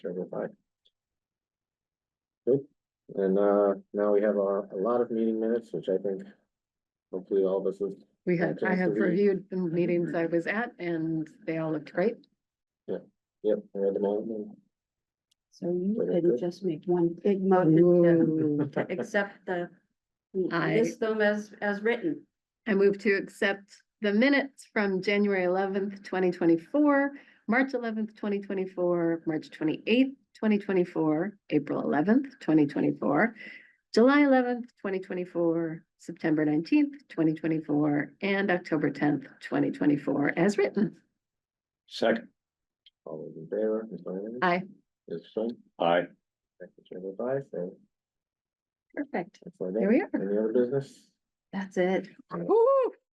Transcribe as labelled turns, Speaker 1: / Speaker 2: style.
Speaker 1: Chairman Pai. Good, and uh, now we have a, a lot of meeting minutes, which I think hopefully all of us have
Speaker 2: We have,
Speaker 1: Okay,
Speaker 2: I
Speaker 1: so
Speaker 2: have
Speaker 1: we-
Speaker 2: reviewed the meetings I was at and they all looked great.
Speaker 1: yep, read them all.
Speaker 3: So you
Speaker 1: Very
Speaker 3: could
Speaker 1: good.
Speaker 3: just make one big motion
Speaker 2: Ooh.
Speaker 3: to, to accept the,
Speaker 2: I-
Speaker 3: list them as, as written.
Speaker 2: I move to accept the minutes from January eleventh, twenty twenty-four, March eleventh, twenty twenty-four, March twenty-eighth, twenty twenty-four, April eleventh, twenty twenty-four, July eleventh, twenty twenty-four, September nineteenth, twenty twenty-four, and October tenth, twenty twenty-four, as written.
Speaker 4: Second.
Speaker 1: All those in favor, Ms. Donovan?
Speaker 2: Aye.
Speaker 1: Ms. Swin?
Speaker 4: Aye.
Speaker 1: Thank you, Chairman Pai, so
Speaker 3: Perfect.
Speaker 1: that's my
Speaker 2: There we
Speaker 1: Any other business?
Speaker 3: That's it.
Speaker 2: Woo!